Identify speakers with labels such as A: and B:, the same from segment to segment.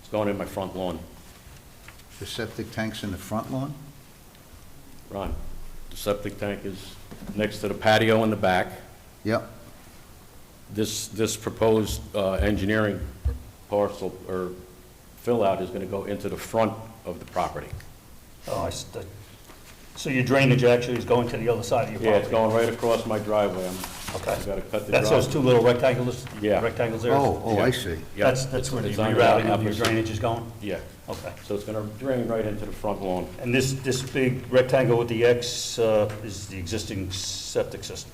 A: It's going in my front lawn.
B: The septic tank's in the front lawn?
A: Ron, the septic tank is next to the patio in the back.
B: Yep,
A: This, this proposed uh, engineering parcel or fill-out is going to go into the front of the property.
C: Oh, I, see. so your drainage actually is going to the other side of your property?
A: Yeah, it's going right across my driveway. I'm,
C: Okay.
A: I've got to cut the driveway.
C: That's those two little rectangles?
A: Yeah.
C: Rectangles there?
B: oh, oh, I see.
A: Yeah.
C: That's, that's where the
A: It's on the
C: rerouting of your
A: opposite-
C: drainage is going?
A: Yeah,
C: Okay.
A: so it's going to drain right into the front lawn.
C: And this, this big rectangle with the X uh, is the existing septic system?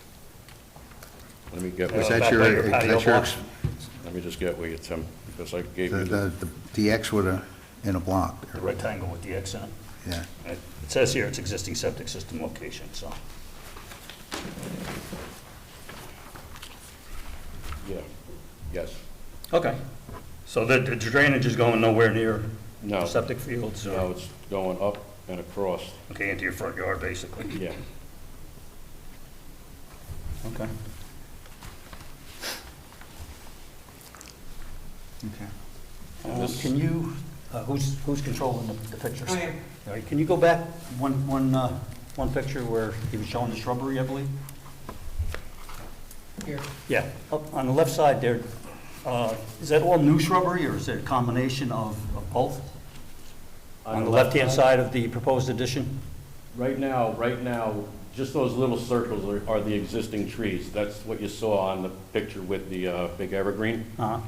A: Let me get,
C: Yeah.
B: Is
A: where-
B: that your,
C: Back by your patio
B: that's your,
C: block.
B: ex-
A: let me just get where you, Tim, because I gave
B: the,
A: you the,
B: the, the X with a, in a block,
C: The rectangle with the X in it?
B: yeah.
C: It says here it's existing septic system location, so.
A: yeah, yes.
C: Okay. So the the drainage is going nowhere near
A: No.
C: septic fields? or-
A: Now it's going up and across,
C: Okay, into your front yard, basically?
A: yeah.
C: Okay.
B: Okay.
C: Um, Can you, uh, who's, who's controlling the- the pictures?
D: I am.
C: All right, can you go back one, one, uh, one picture where he was showing the shrubbery, I believe?
D: Here,
C: Yeah, up on the left side there, uh, is that all new shrubbery, or is it a combination of of both? On the left-hand side of the proposed addition?
A: Right now, right now, just those little circles are, are the existing trees. That's what you saw on the picture with the, uh, big evergreen.
C: Uh-huh.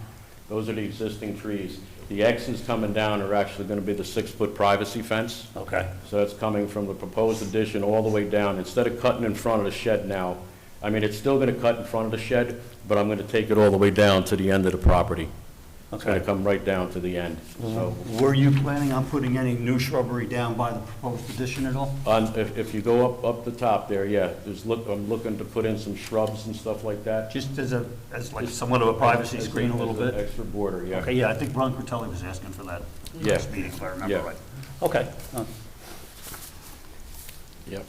A: Those are the existing trees. The X's coming down are actually gonna be the six-foot privacy fence.
C: Okay,
A: So that's coming from the proposed addition all the way down. Instead of cutting in front of the shed now, I mean, it's still gonna cut in front of the shed, but I'm gonna take it all the way down to the end of the property. It's gonna
C: Okay.
A: come right down to the end, so.
C: Were you planning on putting any new shrubbery down by the proposed addition at all?
A: On, if, if you go up, up the top there, yeah, there's look, I'm looking to put in some shrubs and stuff like that.
C: Just as a, as like somewhat of a privacy screen a little
A: As an
C: bit?
A: Extra border, yeah.
C: Okay, yeah, I think Ron Cortelli was asking for that
A: Yeah.
C: last meeting, if I remember
A: Yeah.
C: right. Okay, uh,
A: Yep.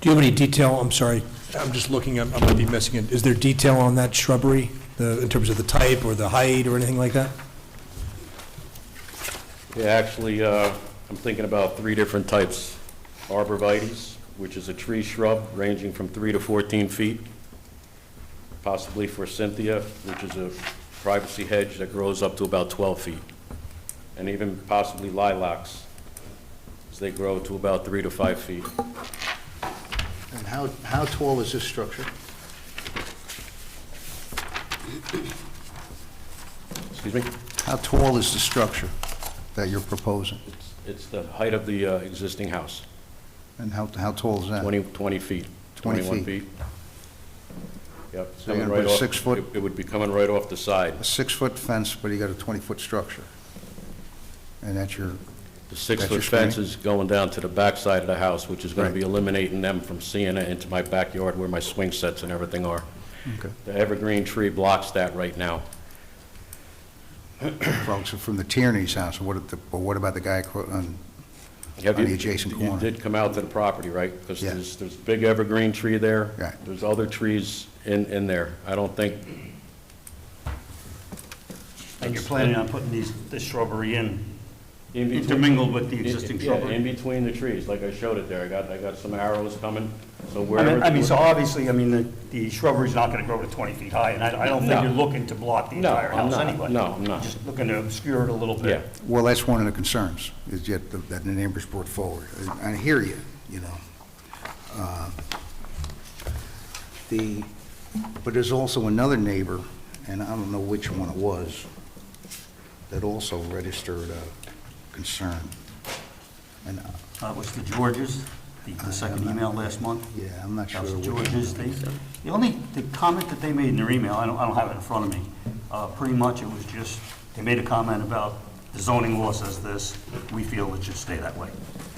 E: Do you have any detail, I'm sorry, I'm just looking, I'm- I might be missing it. Is there detail on that shrubbery, the- in terms of the type or the height or anything like that?
A: Yeah, actually, uh, I'm thinking about three different types. Arborvitae's, which is a tree shrub ranging from three to 14 feet, possibly forsythia, which is a privacy hedge that grows up to about 12 feet, and even possibly lilacs, as they grow to about three to five feet.
B: And how, how tall is this structure?
A: Excuse me?
B: How tall is the structure that you're proposing?
A: It's- It's the height of the uh, existing house,
B: And how, how tall is that?
A: 20, 20 feet,
B: 20
A: 21
B: feet.
A: feet. Yep. it's
B: So you're
A: coming
B: gonna
A: right
B: put a
A: off-
B: six foot-
A: it- It would be coming right off the side.
B: A six-foot fence, but you got a 20-foot structure. And that's your,
A: The
B: your
A: six-foot
B: screen?
A: fence is going down to the back side of the house, which is going to
B: Right.
A: be eliminating them from seeing it into my backyard where my swing sets and everything are.
B: Okay.
A: The evergreen tree blocks that right now.
B: folks are from the Tierney's house, what, if the- but what about the guy acro- on
A: Have
B: On
A: you-
B: the adjacent
A: You
B: corner.
A: did come out to the property, right? Because
B: Yeah.
A: there's, there's a big evergreen tree there.
B: Right.
A: There's other trees in, in there. I don't think,
C: and you're planning on putting these, this shrubbery in
A: in between.
C: intermingled with the
A: In-
C: existing
A: yeah, in
C: shrubbery?
A: between the trees, like I showed it there, I got, I got some arrows coming, so
C: I
A: wherever.
C: mean, I mean, so obviously, I mean, the, the shrubbery's not gonna grow to twenty feet high, and I, I don't think
A: No.
C: you're looking to block the
A: No,
C: entire
A: I'm
C: house
A: not.
C: anyway.
A: No, I'm not.
C: Just looking to obscure it a little
A: Yeah,
C: bit.
B: Well, that's one of the concerns, is yet the- that the neighbors brought forward. And I hear you, you know. Uh, The, but there's also another neighbor, and I don't know which one it was, that also registered a concern. And, uh,
C: Uh, it was the Georges, the, the second email last month.
B: yeah, I'm not sure.
C: That was
B: which one.
C: George's, they, the only, the comment that they made in their email, I don't, I don't have it in front of me, uh, pretty much it was just, they made a comment about the zoning law says this, we feel it should stay that way.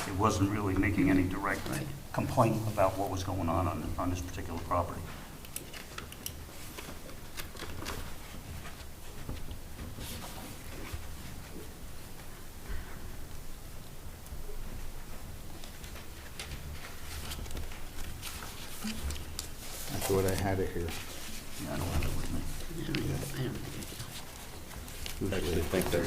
C: It wasn't really making any direct complaint about what was going on on, on this particular property.
B: I thought I had it here.
C: Yeah, I don't have it with me.
D: I don't think I can.
A: actually think that